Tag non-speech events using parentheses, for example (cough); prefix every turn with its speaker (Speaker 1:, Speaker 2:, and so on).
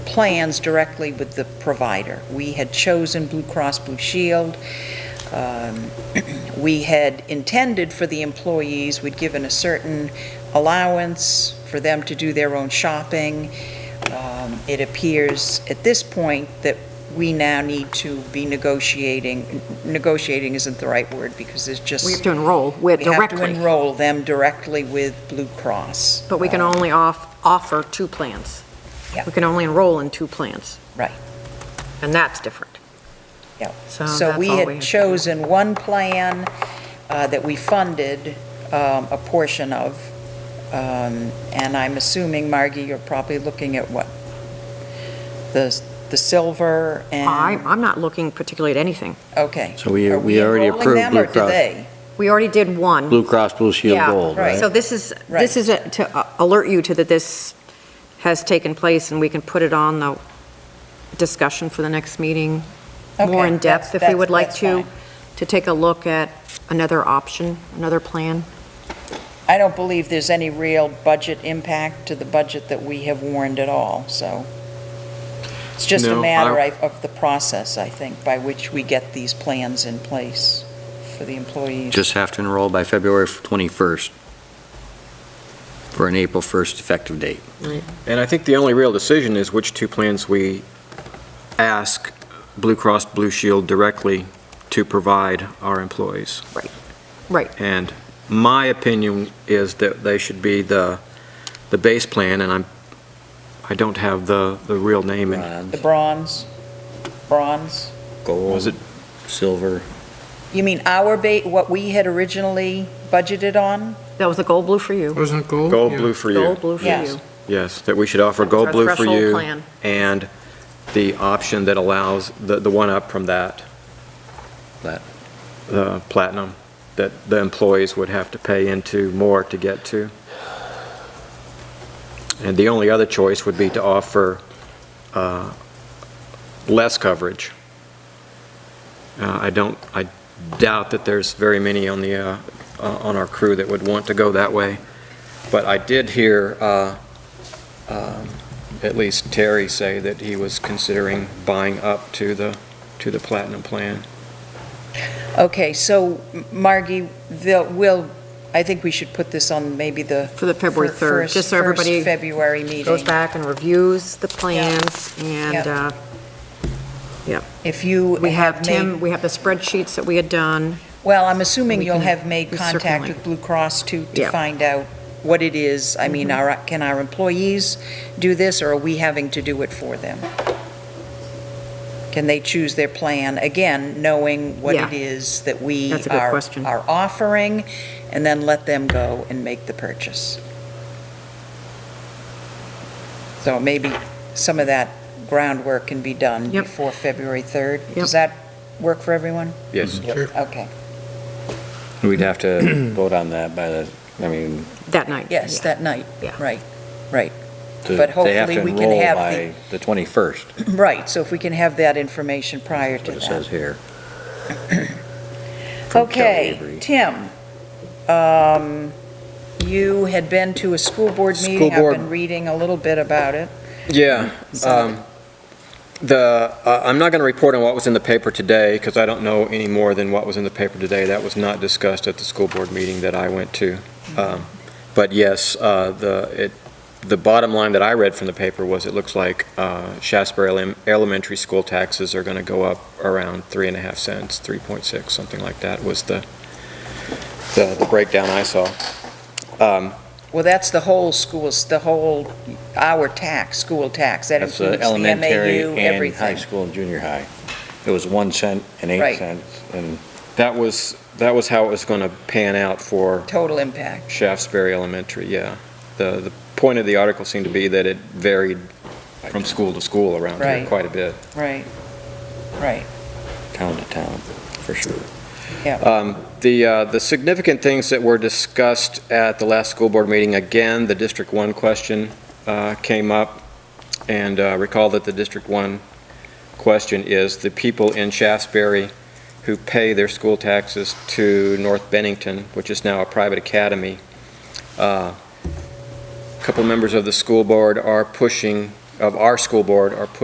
Speaker 1: plans directly with the provider. We had chosen Blue Cross Blue Shield. Um, (clears throat) We had intended for the employees, we'd given a certain allowance for them to do their own shopping. Um, It appears at this point that we now need to be negotiating, negotiating isn't the right word because there's just.
Speaker 2: We have to enroll with
Speaker 1: We have to
Speaker 2: directly,
Speaker 1: enroll them directly with Blue Cross.
Speaker 2: but we can only off, offer two plans.
Speaker 1: Yeah.
Speaker 2: We can only enroll in two plans.
Speaker 1: Right.
Speaker 2: And that's different.
Speaker 1: Yep.
Speaker 2: So
Speaker 1: So
Speaker 2: Um, that's
Speaker 1: we
Speaker 2: all
Speaker 1: had
Speaker 2: we-
Speaker 1: chosen one plan uh, that we funded um, a portion of, um, and I'm assuming, Margie, you're probably looking at what? The, the silver and?
Speaker 2: I, I'm not looking particularly at anything.
Speaker 1: Okay.
Speaker 3: So we-
Speaker 1: Are
Speaker 3: we already
Speaker 1: enrolling
Speaker 3: approved
Speaker 1: them,
Speaker 3: Blue
Speaker 1: or do
Speaker 3: Cross.
Speaker 1: they?
Speaker 2: We already did one.
Speaker 3: Blue Cross Blue Shield
Speaker 2: Yeah,
Speaker 3: Gold,
Speaker 1: right.
Speaker 3: right?
Speaker 2: So this is,
Speaker 1: Right.
Speaker 2: this is a- to uh, alert you to that this has taken place and we can put it on the discussion for the next meeting, more
Speaker 1: Okay,
Speaker 2: in depth
Speaker 1: that's-
Speaker 2: if we would
Speaker 1: that's-
Speaker 2: like
Speaker 1: that's
Speaker 2: to,
Speaker 1: fine.
Speaker 2: to take a look at another option, another plan.
Speaker 1: I don't believe there's any real budget impact to the budget that we have warned at all, so. It's just a
Speaker 4: No, I-
Speaker 1: matter I- of the process, I think, by which we get these plans in place for the employees.
Speaker 3: Just have to enroll by February 21st for an April 1st effective date.
Speaker 4: And I think the only real decision is which two plans we ask Blue Cross Blue Shield directly to provide our employees.
Speaker 2: Right. Right.
Speaker 4: And my opinion is that they should be the, the base plan, and I'm, I don't have the, the real name. in-
Speaker 1: The bronze, bronze.
Speaker 4: Was
Speaker 3: Gold,
Speaker 4: it-
Speaker 3: silver.
Speaker 1: You mean our ba, what we had originally budgeted on?
Speaker 2: That was a gold blue for you.
Speaker 5: Wasn't it gold?
Speaker 4: Gold
Speaker 5: Yeah.
Speaker 4: Blue for you.
Speaker 2: Gold blue for
Speaker 1: Yes.
Speaker 2: you.
Speaker 4: Yes, that we should offer
Speaker 2: That's our
Speaker 4: Gold Blue for
Speaker 2: threshold
Speaker 4: you
Speaker 2: plan.
Speaker 4: and the option that allows, the, the one up from that.
Speaker 3: Plat-
Speaker 4: The platinum, that the employees would have to pay into more to get to. And the only other choice would be to offer uh, less coverage. Uh, I don't, I doubt that there's very many on the, uh, uh, on our crew that would want to go that way. But I did hear uh, um, at least Terry say that he was considering buying up to the, to the platinum plan.
Speaker 1: Okay, so Margie, they'll, will, I think we should put this on maybe the.
Speaker 2: For the February
Speaker 1: fir-
Speaker 2: 3rd,
Speaker 1: first-
Speaker 2: just so everybody
Speaker 1: First February
Speaker 2: Goes
Speaker 1: meeting.
Speaker 2: back and reviews the plans and,
Speaker 1: Yeah.
Speaker 2: uh,
Speaker 1: If you
Speaker 2: we have
Speaker 1: made-
Speaker 2: Tim, we have the spreadsheets that we had done.
Speaker 1: Well, I'm assuming
Speaker 2: We
Speaker 1: you'll
Speaker 2: can-
Speaker 1: have made
Speaker 2: we
Speaker 1: contact
Speaker 2: certainly-
Speaker 1: with Blue Cross to, to
Speaker 2: Yeah. Mm-hmm.
Speaker 1: find out what it is. I mean, our, can our employees do this, or are we having to do it for them? Can they choose their plan, again, knowing what it
Speaker 2: Yeah.
Speaker 1: is that we
Speaker 2: That's a good
Speaker 1: are,
Speaker 2: question.
Speaker 1: are offering, and then let them go and make the purchase? So maybe some of that groundwork can be done
Speaker 2: Yep.
Speaker 1: before February 3rd?
Speaker 2: Yep.
Speaker 1: Does that work for everyone?
Speaker 4: Yes.
Speaker 1: Okay.
Speaker 6: We'd have to
Speaker 3: (clears throat)
Speaker 6: vote on that by the, I mean,
Speaker 2: That night.
Speaker 1: Yes,
Speaker 2: Yeah.
Speaker 1: that night,
Speaker 2: Yeah.
Speaker 1: right, (clears throat) right,
Speaker 6: to-
Speaker 1: But
Speaker 6: they have
Speaker 1: hopefully
Speaker 6: to
Speaker 1: we can
Speaker 6: enroll
Speaker 1: have
Speaker 6: by the 21st,
Speaker 1: right. So if we can have that information prior to
Speaker 6: what it says
Speaker 1: that.
Speaker 6: here. from Kelly
Speaker 1: Okay,
Speaker 6: Avery.
Speaker 1: Tim, um, you had been to a school board
Speaker 4: School
Speaker 1: meeting. I've
Speaker 4: board.
Speaker 1: been reading a little bit about it.
Speaker 4: Yeah.
Speaker 1: So-
Speaker 4: um, The, uh, I'm not going to report on what was in the paper today, because I don't know any more than what was in the paper today. That was not discussed at the school board meeting that I went to. Um, But yes, uh, the, it, the bottom line that I read from the paper was, it looks like uh, Shasbury Elem- Elementary School taxes are going to go up around three and a half cents, 3.6, something like that was the, the the breakdown I saw. Um,
Speaker 1: Well, that's the whole schools, the whole, our tax, school tax, that
Speaker 6: That's the
Speaker 1: includes the
Speaker 6: elementary
Speaker 1: MAU,
Speaker 6: and high
Speaker 1: everything.
Speaker 6: school and junior high. It was 1 cent and
Speaker 1: Right.
Speaker 6: 8 cents, and
Speaker 4: That was, that was how it was going to pan out for
Speaker 1: Total impact.
Speaker 4: Shaftesbury Elementary, yeah. The, the point of the article seemed to be that it varied from school to school around here
Speaker 1: Right.
Speaker 4: quite a bit.
Speaker 1: Right, right,
Speaker 6: town to town, for sure.
Speaker 1: yeah.
Speaker 4: Um, The, uh, the significant things that were discussed at the last school board meeting, again, the District 1 question uh, came up, and uh, recall that the District 1 question is the people in Shaftesbury who pay their school taxes to North Bennington, which is now a private academy. Uh, A Couple members of the school board are pushing of our school board are put